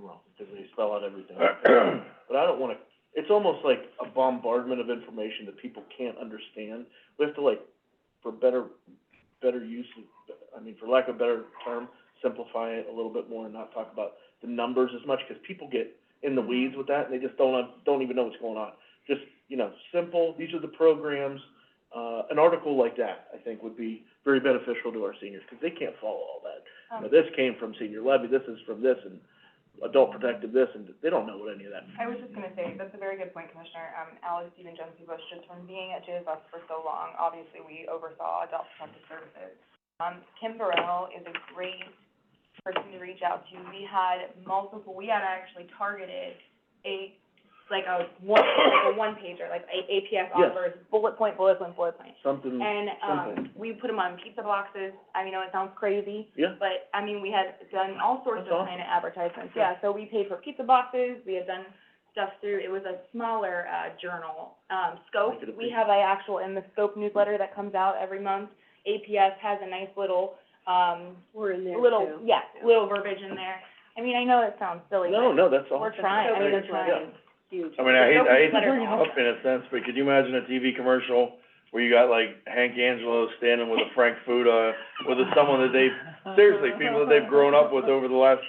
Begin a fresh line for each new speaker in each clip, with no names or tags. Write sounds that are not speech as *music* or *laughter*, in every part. wrong, because they spell out everything. But I don't wanna, it's almost like a bombardment of information that people can't understand. We have to like, for better, better use, of- I mean, for lack of a better term, simplify it a little bit more and not talk about the numbers as much, because people get in the weeds with that, and they just don't, un- don't even know what's going on. Just, you know, simple, these are the programs, uh, an article like that, I think, would be very beneficial to our seniors, because they can't follow all that. You know,
Um,
this came from senior levy, this is from this, and adult protective this, and they don't know what any of that
I was just gonna say, that's a very good point, Commissioner. Um, Alex, even Jency Bush, just from being at JFS for so long, obviously, we oversaw adult protective services. Um, Kim Burrell is a great person to reach out to. We had multiple, we had actually targeted a, like a one, like a one pager, like a APS
Yes. Mm-hmm.
offers, bullet point, bullet point, bullet point.
Something,
And, um,
Something.
we put them on pizza boxes. I mean, I know it sounds crazy,
yeah,
but, I mean, we had done all sorts
That's
of
awesome.
kind of advertisements,
Yeah.
yeah, so we paid for pizza boxes, we had done stuff through, it was a smaller, uh, journal, um, Scope,
Make it a
we
big-
have a actual in the Scope newsletter that comes out every month. APS has a nice little, um,
We're in there
little,
too.
yeah,
Yeah.
little verbiage in there. I mean, I know it sounds silly,
no,
but
no, that's all.
we're trying, I mean, we're
Yeah.
trying.
Huge.
I mean, I hate, I hate to
Better
bring it
now.
up in a sense, but could you imagine a TV commercial where you got like Hank Angelo standing with a Frank Fuda, with a- someone that they've, seriously, people that they've grown up with over the last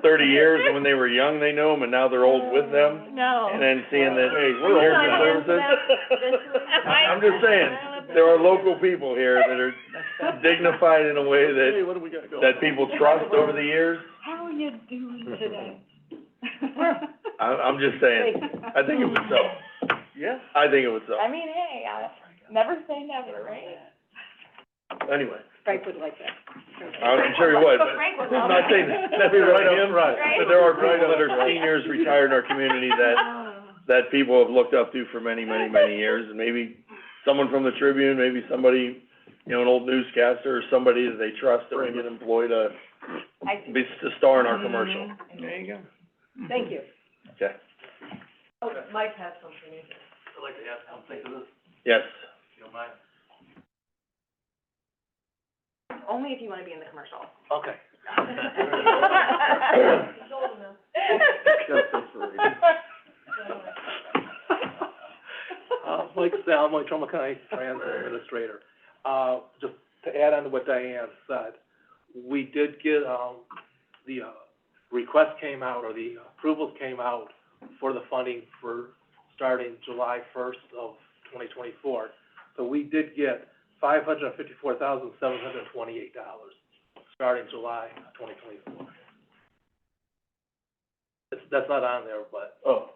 thirty years, and when they were young, they knew him, and now they're old with them,
No.
and then seeing that, hey,
We're
we're here
not
for
gonna
services. *laughs* I'm just saying, there are local people here that are dignified in a way
Hey,
that,
what do we got going?
that people trust over the years.
*laughs* How are you doing today?
I, I'm just saying, I
*laughs*
think it would sell,
Yeah,
I think it would sell.
I mean, hey, uh, never say never, right?
anyway.
Frank would like that.
I'm sure he
*laughs*
would, but
Frank would
I'm
love it.
not saying necessarily him,
Right.
but there are people that are seniors retired in our community that, that people have looked up to for many, many, many years. And maybe someone from the Tribune, maybe somebody, you know, an old newscaster or somebody that they trust that would get employed to,
I,
be, to star in our commercial. There you go.
Thank you.
Okay,
Oh, Mike has something.
yes.
only if you wanna be in the commercial.
*laughs*
Okay.
Uh, Mike Sal, Mike Trumbull County Transit Administrator. Uh, just to add on to what Diane said, we did get, um, the, uh, request came out, or the approvals came out for the funding for starting July first of twenty twenty-four. So we did get five hundred and fifty-four thousand, seven hundred and twenty-eight dollars, starting July twenty twenty-four. That's, that's not on there, but
Oh,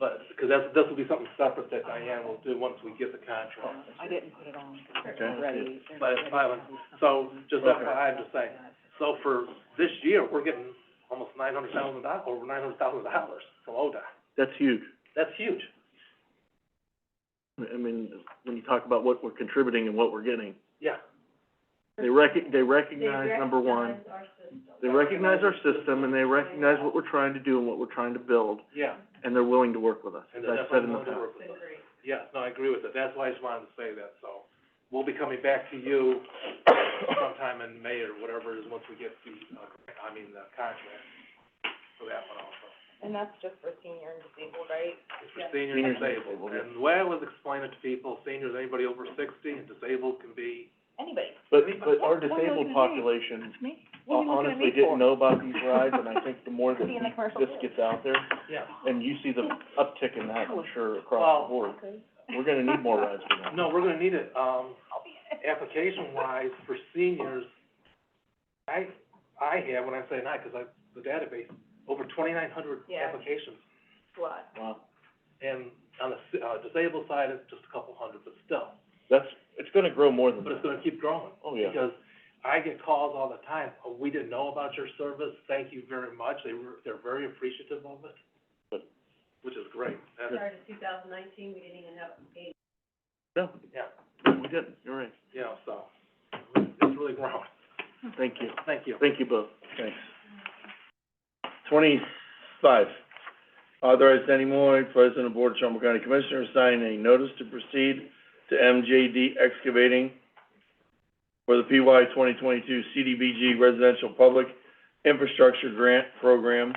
but, because that's, this will be something separate that Diane will do once we get the contract.
I didn't put it on.
Okay.
Ready.
But it's fine. So, just FYI, I'm just saying, so for this year, we're getting almost nine hundred thousand dollars, over nine hundred thousand dollars from ODOT.
that's huge.
That's huge.
I mean, when you talk about what we're contributing and what we're getting,
Yeah,
they rec- they recognize, number one, they recognize our system and they recognize what we're trying to do and what we're trying to build,
yeah.
and they're willing to work with us,
And
as
that's
I've said in the
why I
past.
wanted to work with us. Yeah, no, I agree with that. That's why I just wanted to say that, so. We'll be coming back to you sometime in May or whatever it is, once we get the, uh, I mean, the contract for that one also.
And that's just for senior and disabled, right?
It's for seniors
Seniors and
and disabled,
disabled, yeah.
and the way I was explaining it to people, seniors, anybody over sixty and disabled can be,
Anybody.
But, but our
What are you looking
disabled
at me?
population uh,
That's me. What are you looking at
honestly
me
didn't
for?
know about these rides, and I think the more
*laughs*
that
Be in the commercial
this
too.
gets out there,
yeah.
and you see the uptick in that, I'm sure, across the board, we're gonna need more rides for that.
No, we're gonna need it, um, application-wise for seniors, I, I have, when I say not, 'cause I, the database, over twenty-nine hundred
Yeah.
applications.
What?
Wow,
And on the, si- uh, disabled side, it's just a couple hundred, but still,
that's, it's gonna grow more than
but it's
that,
gonna keep growing.
oh, yeah.
Because I get calls all the time, oh, we didn't know about your service, thank you very much, they were, they're very appreciative of it.
Good.
Which is great, that's,
No,
yeah.
we didn't, you're right,
Yeah, so, it's really grown,
thank you,
thank you.
thank you both.
Thanks. Twenty-five, authorized Danny Moy, President of Board of Trumbull County Commissioners, sign a notice to proceed to MJD Excavating for the PY twenty twenty-two CDBG Residential Public Infrastructure Grant Program